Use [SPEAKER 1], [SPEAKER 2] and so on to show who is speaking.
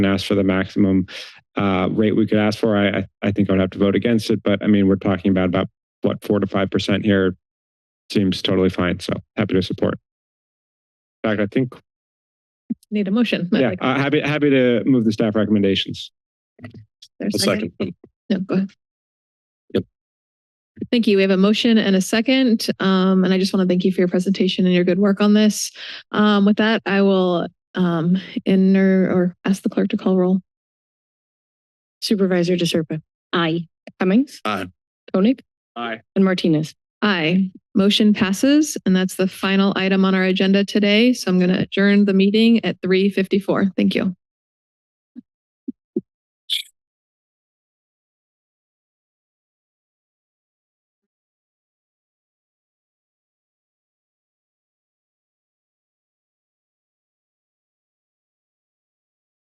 [SPEAKER 1] and ask for the maximum uh, rate we could ask for, I, I, I think I would have to vote against it. But I mean, we're talking about about what four to five percent here seems totally fine. So happy to support. In fact, I think
[SPEAKER 2] Need a motion. I'd
[SPEAKER 1] yeah,
[SPEAKER 2] like-
[SPEAKER 1] uh, happy happy to move the staff recommendations.
[SPEAKER 2] there's
[SPEAKER 3] A second.
[SPEAKER 2] No, go ahead.
[SPEAKER 3] Yep.
[SPEAKER 2] Thank you. We have a motion and a second. Um, and I just want to thank you for your presentation and your good work on this. Um, with that, I will um enter or ask the clerk to call roll.
[SPEAKER 4] Supervisor DeSerpa. Aye. Cummings.
[SPEAKER 3] Aye.
[SPEAKER 4] Koenig
[SPEAKER 1] Aye.
[SPEAKER 4] and Martinez.
[SPEAKER 2] Aye. Motion passes, and that's the final item on our agenda today. So I'm going to adjourn the meeting at three fifty-four. Thank you.